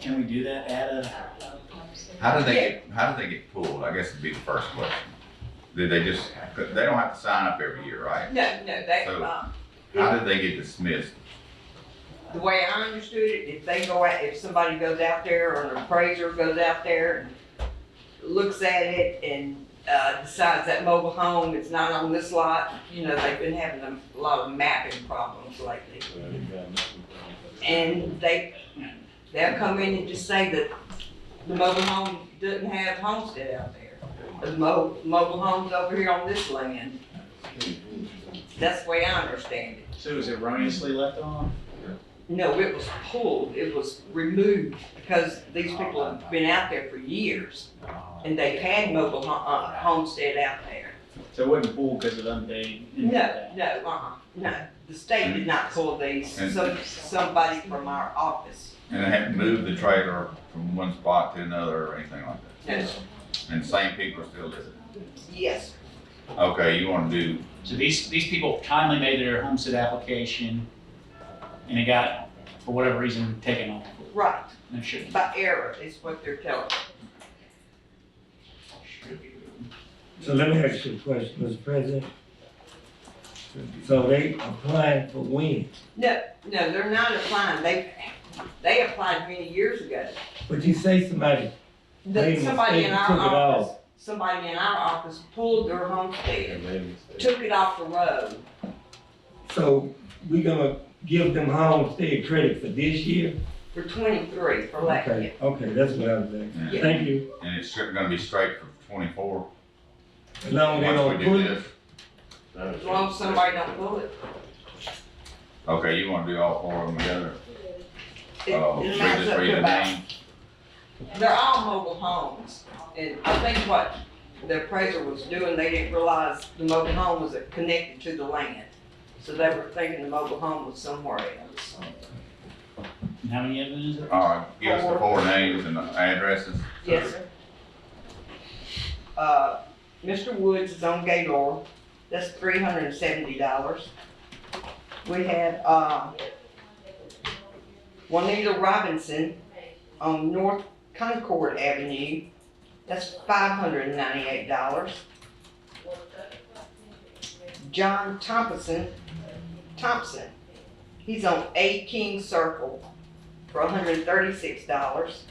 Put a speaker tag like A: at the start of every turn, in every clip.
A: Can we do that at a?
B: How did they get, how did they get pulled? I guess would be the first question. Did they just, they don't have to sign up every year, right?
C: No, no, they,
B: So-
C: um,
B: How did they get dismissed?
C: the way I understood it, if they go out, if somebody goes out there or an appraiser goes out there and looks at it and, uh, decides that mobile home is not on this lot, you know, they've been having a lot of mapping problems lately. And they, they'll come in and just say that the mobile home doesn't have homestead out there. The mo- mobile home's over here on this land. That's the way I understand it.
A: So it was erroneously left on?
C: No, it was pulled, it was removed because these people have been out there for years and they've had mobile ho- uh, homestead out there.
A: So it wasn't pool because of unpaid?
C: No, no, uh-uh, no. The state did not pull these, so somebody from our office.
B: And they haven't moved the trailer from one spot to another or anything like that?
C: Yes.
B: And same people are still living?
C: Yes,
B: Okay, you wanna do,
A: So these, these people kindly made their homestead application and it got, for whatever reason, taken off.
C: right,
A: No, shouldn't.
C: by error is what they're telling. us.
D: So let me ask you a question, Mr. President. So they applying for when?
C: No, they're not applying, they, they applied many years ago.
D: But you say somebody, They
C: The- Somebody in
D: mistake
C: our
D: took it off.
C: office, somebody in our office pulled their homestead, took it off the road.
D: so we gonna give them homestead credit for this year?
C: For twenty-three, for last year.
D: Okay, okay, that's what I was asking.
B: and
C: Yeah.
D: Thank you.
B: and it's straight- gonna be straight for twenty-four?
D: As long as they
B: Once
D: don't
B: we do
D: put it.
B: this?
C: As long as somebody don't pull it.
B: Okay, you wanna do all four of them together?
C: It-
B: Uh,
C: it
B: we
C: lines
B: just
C: up
B: read
C: to
B: the
C: about,
B: name,
C: they're all mobile homes. And I think what the appraiser was doing, they didn't realize the mobile home was connected to the land. So they were thinking the mobile home was somewhere else.
A: And how many of them is it?
B: all right, give us the four names and the addresses.
C: Yes, sir. Uh, Mr. Woods is on Gaylord, that's three hundred and seventy dollars. We had, uh, Juanita Robinson on North Concord Avenue, that's five hundred and ninety-eight dollars. John Thompson, Thompson, he's on A King Circle for hundred and thirty-six dollars.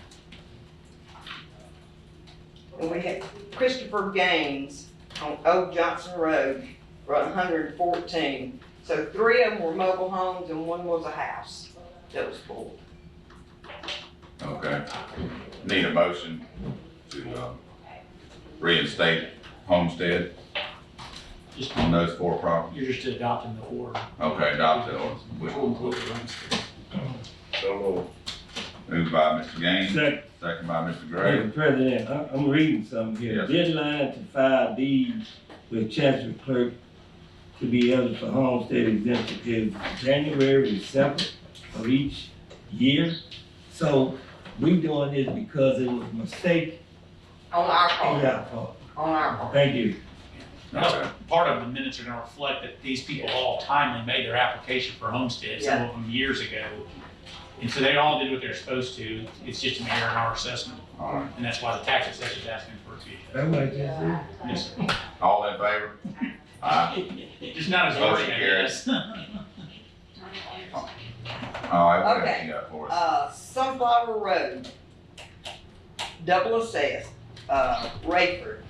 C: And we had Christopher Gaines on Old Johnson Road for hundred and fourteen. So three of them were mobile homes and one was a house that was full.
B: Okay. Need a motion to, uh, reinstate homestead
A: Just,
B: on those four properties?
A: you're just adopting the order.
B: Okay, adopt the order.
A: Which will include the homestead.
B: Moved by Mr. Gaines,
D: Second,
B: second by Mr. Gray.
D: Mr. President, I, I'm reading something here.
B: Yes.
D: Deadline to file deeds with Chancery Clerk to be eligible for homestead exemption is January the seventh of each year. So we doing this because it was a mistake
C: On our
D: on
C: part,
D: our part.
C: on our part.
D: Thank you.
B: Okay.
A: Part of the minutes are gonna reflect that these people all timely made their application for homestead, some of them years ago. And so they all did what they're supposed to, it's just an error in our assessment,
B: All right.
A: and that's why the tax assessor's asking for it to be.
D: That's what I just said.
A: Yes,
B: All in favor? Aye.
A: just not as
B: Motion
A: worried, I
B: carries.
A: guess.
B: All right, what else
C: Okay.
B: you got for us?
C: Uh, Sunflower Road, double assessed, uh, Rayford,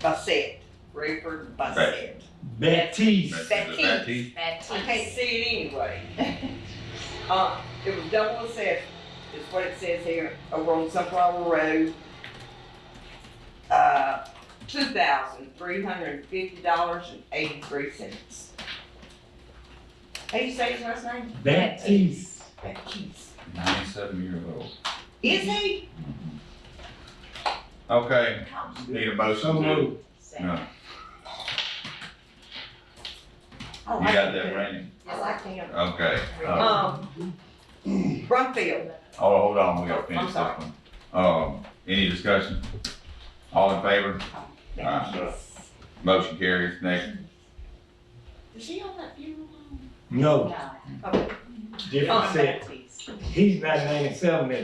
C: Bassett, Rayford, Bassett.
D: Baptiste.
B: Is it Baptiste?
C: I can't see it anyway. Uh, it was double assessed, is what it says here, over on Sunflower Road. Uh, two thousand three hundred and fifty dollars and eighty-three cents. How you say his last name?
D: Baptiste.
C: Baptiste.
B: Ninety-seven years old.
C: Is he?
B: Okay, need a
D: So
B: motion to, you
D: moved.
C: Oh, I like
B: got that
C: him.
B: ready?
C: I like him.
B: Okay. uh,
C: Um, Brumfield,
B: Oh, hold on, we gotta finish
C: I'm
B: this
C: sorry.
B: one. Um, any discussion? All in favor?
C: Baptiste.
B: Motion carries. Next,
C: Is he on that funeral home?
D: No,
C: Okay. Uh,
D: different set.
C: Baptiste.
D: He's not ninety-seven,